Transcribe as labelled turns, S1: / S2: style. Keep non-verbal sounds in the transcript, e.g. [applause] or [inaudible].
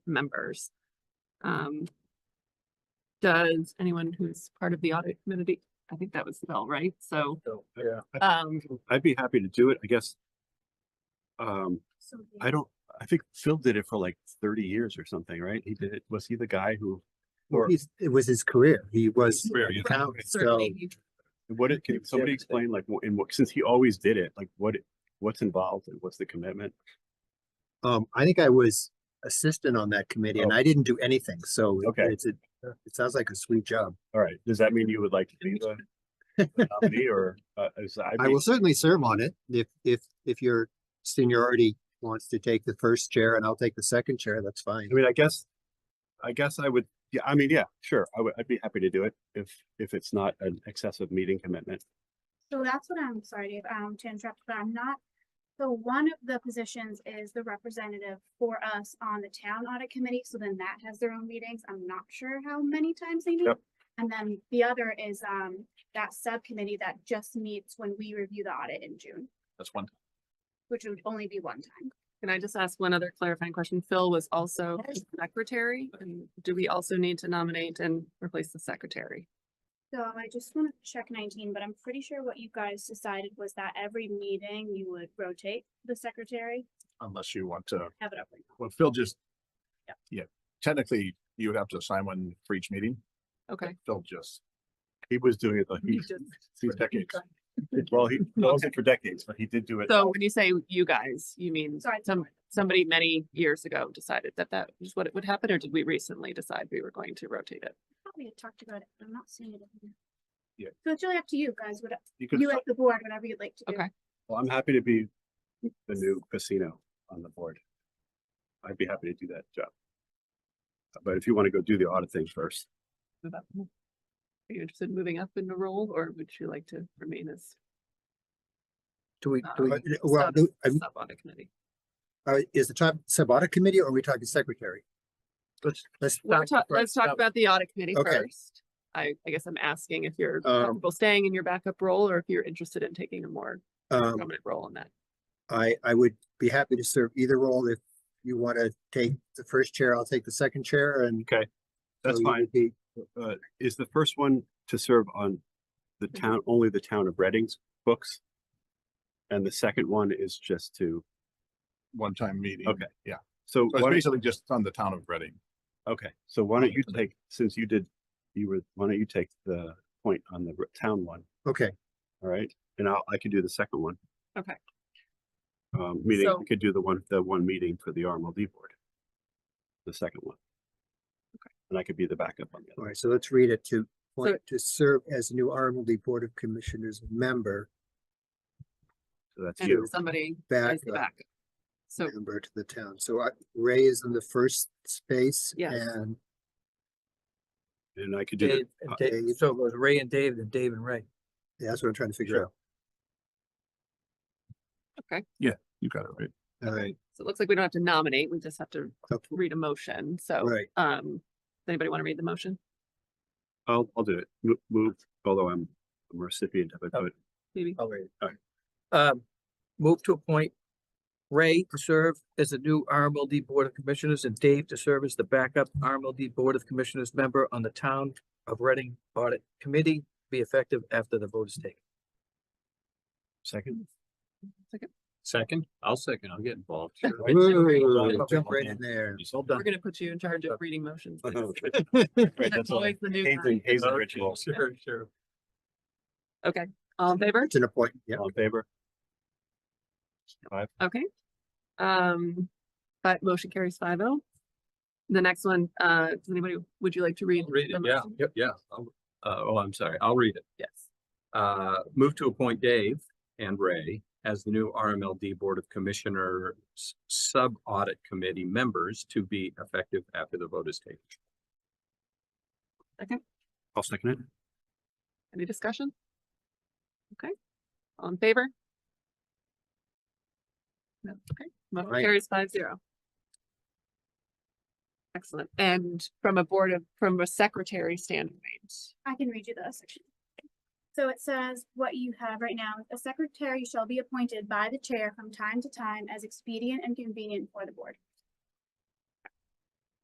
S1: members. Um, does anyone who's part of the audit committee, I think that was Phil, right? So,
S2: Yeah.
S1: um,
S3: I'd be happy to do it, I guess. Um, I don't, I think Phil did it for like thirty years or something, right? He did it, was he the guy who?
S2: Well,
S3: Or
S2: he's- it was his career. He was.
S3: Career,
S2: an
S3: yeah.
S2: accountant, so
S1: certainly you
S3: what did,
S2: Yeah,
S3: can somebody
S2: yeah.
S3: explain like, wh- in what, since he always did it, like what, what's involved and what's the commitment?
S2: Um, I think I was assistant on that committee and
S3: Oh.
S2: I didn't do anything, so it-
S3: Okay.
S2: it's a, it sounds like a sweet job.
S3: All right, does that mean you would like to be the the nominee or, uh, is I?
S2: I will certainly serve on it if, if, if your seniority wants to take the first chair and I'll take the second chair, that's fine.
S3: I mean, I guess, I guess I would, yeah, I mean, yeah, sure, I would, I'd be happy to do it if, if it's not an excessive meeting commitment.
S4: So that's what I'm sorry, Dave, um, to interrupt, but I'm not. So one of the positions is the representative for us on the town audit committee, so then that has their own meetings. I'm not sure how many times they meet.
S3: Yep.
S4: And then the other is, um, that subcommittee that just meets when we review the audit in June,
S5: That's one.
S4: which would only be one time.
S1: Can I just ask one other clarifying question? Phil was also secretary, and do we also need to nominate and replace the secretary?
S4: So I just want to check nineteen, but I'm pretty sure what you guys decided was that every meeting you would rotate the secretary,
S5: Unless you want to,
S4: have it up. right now.
S5: well, Phil just.
S4: Yeah.
S5: Yeah, technically, you would have to assign one for each meeting. but
S1: Okay.
S5: Phil just,
S3: He was doing it like,
S1: You
S3: he-
S1: just-
S5: for decades.
S3: well, he, that was it for decades, but he did do it.
S1: So when you say you guys, you mean
S4: Sorry.
S1: some, somebody many years ago decided that that was what it would happen, or did we recently decide we were going to rotate it?
S4: Probably had talked about it, but I'm not seeing it. in here.
S5: Yeah.
S4: So it's really up to you guys, what,
S3: You could,
S4: you as the board, whatever you'd like to do.
S1: Okay.
S3: well, I'm happy to be the new casino on the board. I'd be happy to do that job. But if you want to go do the audit thing first,
S1: Move up? Are you interested in moving up in the role, or would you like to remain as?
S2: Do we, do
S1: uh,
S2: we, well,
S1: sub-
S2: do- I'm-
S1: sub on the committee?
S2: uh, is the top sub audit committee or are we talking secretary?
S5: Let's-
S2: Let's,
S1: Well, ta-
S5: right,
S1: let's talk
S5: now-
S1: about the audit committee
S2: Okay.
S1: first. I, I guess I'm asking if you're
S2: Um,
S1: comfortable staying in your backup role or if you're interested in taking a more
S2: um,
S1: prominent role in that.
S2: I, I would be happy to serve either role. If you want to take the first chair, I'll take the second chair and.
S3: Okay, that's
S2: so you
S3: fine.
S2: would be-
S3: uh, is the first one to serve on the town, only the town of Reading's books? And the second one is just to,
S5: one-time meeting.
S3: Okay.
S5: Yeah,
S3: so,
S5: so
S3: why
S5: it's
S3: don't-
S5: basically just on the town of Reading.
S3: okay, so why don't you
S5: Okay.
S3: take, since you did, you were, why don't you take the point on the r- town one,
S2: Okay,
S3: all right? And I'll, I can do the second one.
S1: Okay.
S3: Um, meaning
S1: So-
S3: we could do the one, the one meeting for the RMLD board. The second one. And I could be the backup on the
S2: all
S3: other.
S2: right, so let's read it to, point to serve as new RMLD Board of Commissioners member,
S3: So that's
S1: And
S3: you.
S1: somebody
S2: back,
S1: as the backup. So
S2: member to the town. So I- Ray is in the first space
S1: Yes.
S2: and
S3: And I could do, the-
S6: Dave,
S3: uh,
S6: and Dave, so it was Ray and Dave and Dave and Ray.
S2: yeah, that's what I'm trying to figure out.
S5: You got it right.
S2: All right,
S1: so it looks like we don't have to nominate, we just have to
S2: Okay.
S1: read a motion. So,
S2: right.
S1: um, does anybody want to read the motion?
S3: I'll, I'll do it. Mo- Move, although I'm I'm a recipient of it,
S6: Oh.
S3: but
S1: Maybe?
S6: I'll read
S3: Alright.
S6: Um, move to appoint Ray to serve as the new RMLD Board of Commissioners and Dave to serve as the backup RMLD Board of Commissioners member on the Town of Reading Audit Committee, be effective after the vote is taken.
S3: second.
S1: Second.
S7: Second, I'll second, I'll get involved. sure.
S2: [laughs] Wait, wait, wait, wait, wait,
S7: Right.
S2: Jump right in there.
S7: It's all
S1: [laughs]
S2: [laughs]
S1: We're
S7: done.
S1: gonna put you in charge of reading motions.
S3: Right,
S1: That's
S3: that's all.
S1: always the new
S3: Hazen,
S1: guy.
S3: Hazen
S7: Okay,
S3: ritual.
S7: Sure, sure.
S1: All in favor?
S2: It's an appointment, yeah.
S3: All in favor?
S1: Okay. Um, but motion carries five oh. The next one, uh, does anybody, would you like to read?
S7: I'll Read
S1: the
S7: it, yeah,
S1: motion?
S7: yep, yeah. I'll- Uh, oh, I'm sorry, I'll read it.
S1: Yes.
S7: Uh, move to appoint Dave and Ray as the new RMLD Board of Commissioners Sub Audit Committee members to be effective after the vote is taken.
S3: I'll second it.
S1: Any discussion? Okay. All in favor? No, Okay, motion
S2: Right.
S1: carries five zero. Excellent. And from a board of, from a secretary standpoint,
S4: I can read you the section. So it says, what you have right now, a secretary shall be appointed by the chair from time to time as expedient and convenient for the board.